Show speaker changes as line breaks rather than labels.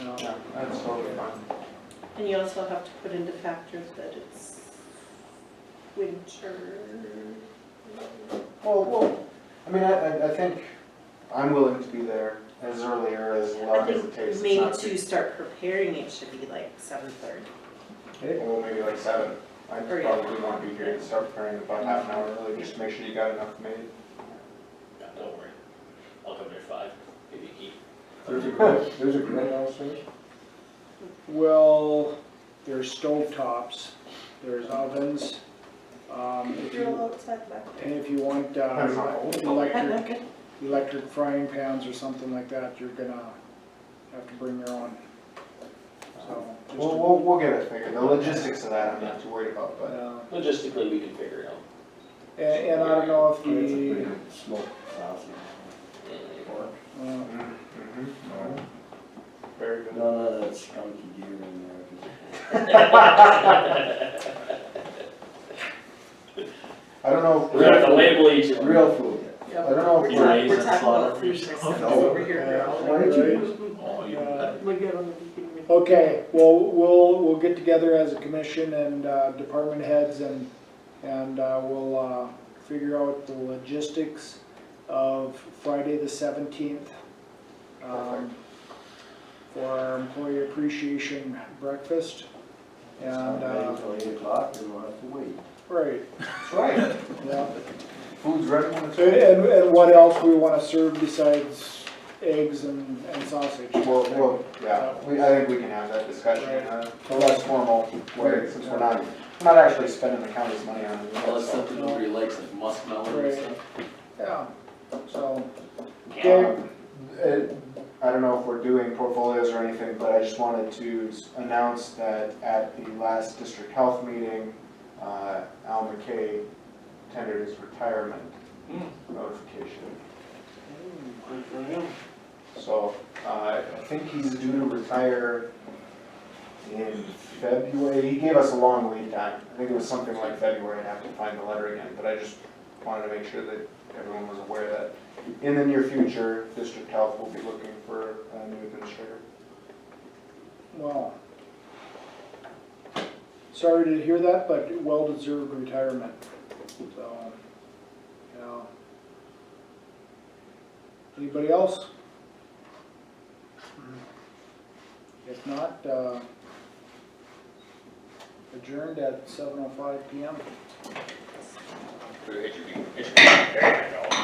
That's totally fine.
And you also have to put into factors that it's winter.
Well, well, I mean, I, I, I think I'm willing to be there as early or as
I
long as it
think
takes. It's
maybe
not
to start preparing, it should be like seven thirty.
too- Well, maybe like seven. I
Or, yeah.
probably want to be here and start preparing about half an hour early, just to make sure you got enough made.
No, Don't worry, I'll come there at five, give you a key.
There's a grill, there's a grill downstairs? Well, there's stovetops, there's ovens, um, if you,
outside back
and if you want, uh, electric, electric frying pans or something like that, you're gonna have to bring your own. So, just
We'll,
to-
we'll, we'll get it figured. The logistics of that I'm not too worried about, but.
uh,
Logistically, we can figure it out.
and, and I don't know if
I mean, It's a pretty
the,
good smoke sausage. Pork.
uh,
Mhm, mhm, no. Very good.
None of that skunky deer in there. 'cause-
I don't know. if
We're gonna have to label each one.
Real food. I don't know if
We're
we're.
talking we're talking about food systems over here,
Why
girl.
don't you-
Oh,
uh, Okay, well, we'll, we'll get together as a commission and uh, department heads and, and uh, we'll uh, figure out the logistics of Friday the seventeenth um, for our employee appreciation breakfast.
It's
And,
not ready
uh,
Until eight o'clock, then we'll have to wait.
right,
That's right.
yeah.
Food's ready when it's.
So, And, and what else we wanna serve besides eggs and, and sausage?
Well, well, yeah, we, I think we can have that discussion, in a a less formal way, since we're not, we're not actually spending the county's money on it.
Unless
so,
something nobody likes, like muskmelon
Right.
and stuff.
Yeah, so,
um, it- I don't know if we're doing portfolios or anything, but I just wanted to s- announce that at the last district health meeting, uh, Al McKay tendered his retirement notification. So, uh, I think he's due to retire in February, he gave us a long lead time, I think it was something like February, I'd have to find the letter again, but I just wanted to make sure that everyone was aware that in the near future, district health will be looking for a new administrator.
well. Sorry to hear that, but well-deserved retirement, so, yeah. Anybody else? If not, uh, adjourned at seven oh five PM.
It should be- it should be-